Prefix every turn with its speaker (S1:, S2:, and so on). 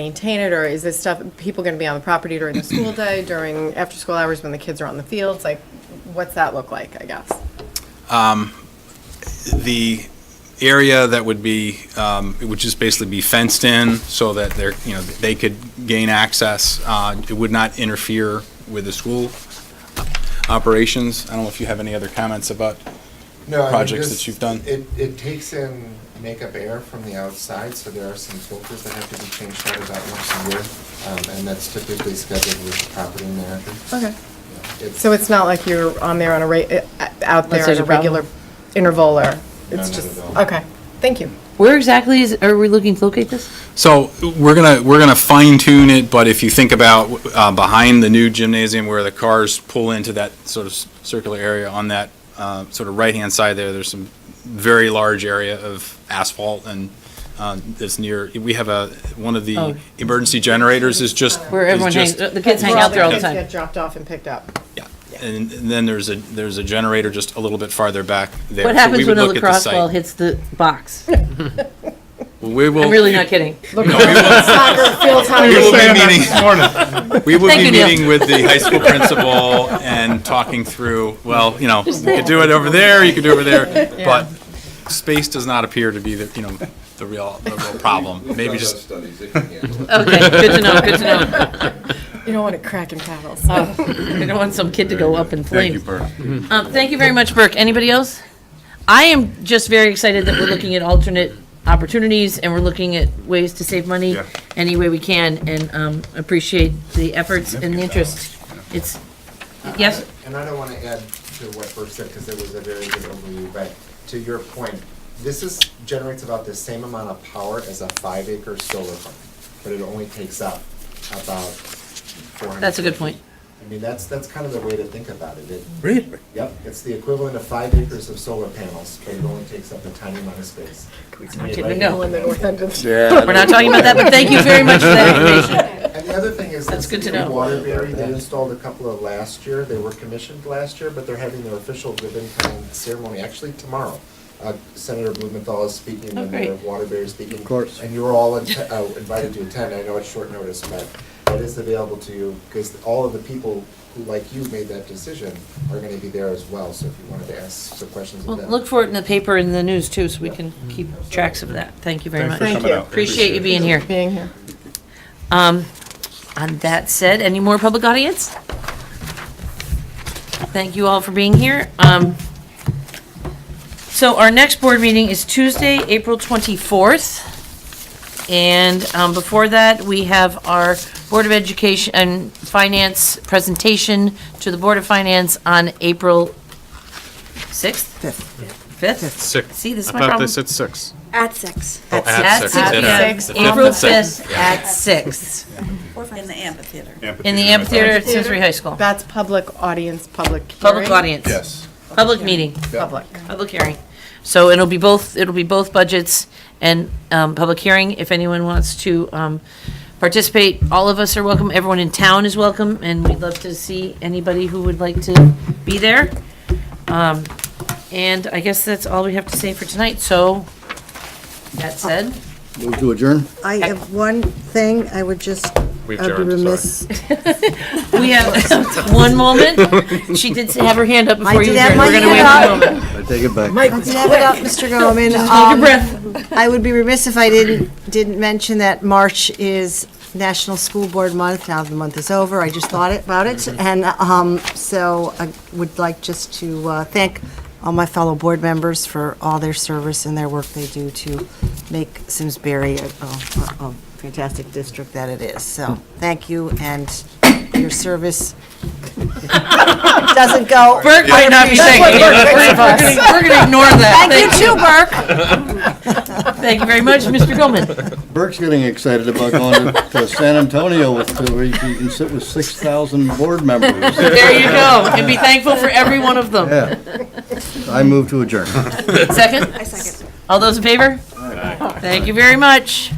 S1: maintain it, or is this stuff, people going to be on the property during the school day, during after-school hours when the kids are on the fields? Like, what's that look like, I guess?
S2: the area that would be, um, it would just basically be fenced in so that they're, you know, they could gain access. Uh, It would not interfere with the school operations. I don't know if you have any other comments about,
S3: No, I mean,
S2: projects
S3: this-
S2: that you've done?
S3: It, it takes in makeup air from the outside, so there are some filters that have to be changed out about once a year. Um, and that's typically scheduled with the property manager.
S1: Okay.
S3: It's,
S1: So it's not like you're on there on a, re- uh, out there
S4: there's
S1: at a
S4: a problem.
S1: regular interval, or,
S3: No,
S1: it's
S3: not
S1: just,
S3: at all.
S1: okay, thank you.
S4: Where exactly is, are we looking to locate this?
S2: so we're gonna, we're gonna fine tune it, but if you think about uh, behind the new gymnasium where the cars pull into that sort of circular area on that uh, sort of right-hand side there, there's some very large area of asphalt and uh, it's near, we have a, one of
S4: Oh.
S2: the emergency generators is just.
S4: Where
S2: is
S4: everyone hangs, uh,
S2: just-
S4: the kids
S1: Where
S4: hang out there all the
S1: kids
S4: time.
S1: Get dropped off and picked up.
S2: Yeah, and and then there's a, there's a generator just a little bit farther back there.
S4: What
S2: So we
S4: happens
S2: would
S4: when a
S2: look at the
S4: lacrosse
S2: site.
S4: ball hits the box?
S2: We will.
S4: I'm really not kidding.
S1: Soccer, field hockey.
S2: We will be meeting, we will
S4: Thank
S2: be
S4: you, Neil.
S2: meeting with the high school principal and talking through, well, you know, you could do it over there, you could do it over there, but space does not appear to be the, you know, the real, the real problem. Maybe just,
S5: Studies, they can handle it.
S4: Okay, good to know, good to know.
S1: You don't want it cracking paddles.
S4: I don't want some kid to go up in
S2: thank you,
S4: flames.
S2: Bert.
S4: Um, thank you very much, Burke. Anybody else? I am just very excited that we're looking at alternate opportunities and we're looking at ways to save money any way we can and, um, appreciate the efforts and the interest. It's, yes?
S3: and I don't want to add to what Burke said, because it was a very good overview, but to your point, this is, generates about the same amount of power as a five acre solar farm, but it only takes up about four hundred.
S4: That's a good point.
S3: I mean, that's, that's kind of the way to think about it. Really? Yep, it's the equivalent of five acres of solar panels, but it only takes up a tiny amount of space. It's made
S4: kidding,
S3: right
S4: no.
S3: here.
S1: In the north end of-
S4: We're not talking about that, but thank you very much for that information.
S3: And the other thing is,
S4: That's
S3: this
S4: good to
S3: new
S4: know.
S3: Waterbury, they installed a couple of last year, they were commissioned last year, but they're having their official ribbon cutting ceremony, actually tomorrow. Uh, Senator Blumenthal is speaking,
S4: Oh,
S3: and Mayor
S4: great.
S3: Waterbury is speaking. Of course. And you were all inte- uh, invited to attend, I know it's short notice, but that is available to you, because all of the people who, like you, made that decision are gonna be there as well, so if you wanted to ask some questions
S4: Well,
S3: of them.
S4: look for it in the paper and the news too, so we can keep tracks of that. Thank you very much.
S1: Thank you.
S4: Appreciate you being here.
S1: Being here.
S4: Um, on that said, any more public audience? Thank you all for being here. Um, so our next board meeting is Tuesday, April 24th. And, um, before that, we have our Board of Education and Finance presentation to the Board of Finance on April 6th? 5th. 5th?
S6: Six.
S4: See, this is
S6: I
S4: my
S6: thought
S4: problem.
S6: they said six.
S7: At six.
S6: Oh,
S4: At six.
S1: At
S4: yeah.
S1: six.
S4: April
S2: The fifth.
S4: 5th at six
S7: In the amphitheater.
S4: in the amphitheater at Simsbury High School.
S1: That's public audience, public
S4: Public
S1: hearing?
S4: audience.
S5: Yes.
S4: Public meeting,
S1: Public.
S4: public hearing. So it'll be both, it'll be both budgets and um, public hearing. If anyone wants to um, participate, all of us are welcome. Everyone in town is welcome, and we'd love to see anybody who would like to be there. Um, And I guess that's all we have to say for tonight. So that said,
S8: Move to adjourn?
S7: I have one thing, I would just,
S6: We've
S7: I'd be
S6: jarred, sorry.
S7: remiss.
S4: we have one moment. She did have her hand up before you.
S7: did have
S4: adjourned. We're
S7: my
S4: gonna wait
S7: hand
S4: a moment.
S8: I take it back.
S7: I did have it up, Mr. Gorman.
S4: Hold
S7: Um,
S4: your breath.
S7: I would be remiss if I didn't, didn't mention that March is National School Board Month. Now the month is over, I just thought about it. And um, so I would like just to uh, thank all my fellow board members for all their service and their work they do to make Simsbury a a- a fantastic district that it is. So thank you and your service doesn't go.
S4: Burke might not be saying it. We're gonna- We're going to ignore that.
S7: Thank you too, Burke.
S4: Thank you very much, Mr. Goldman.
S8: Burke's getting excited about going to- to San Antonio with, to where he can sit with 6,000 board members.
S4: There you go. And be thankful for every one of them.
S8: Yeah. I move to adjourn.
S4: Second? I second. All those in favor? Thank you very much.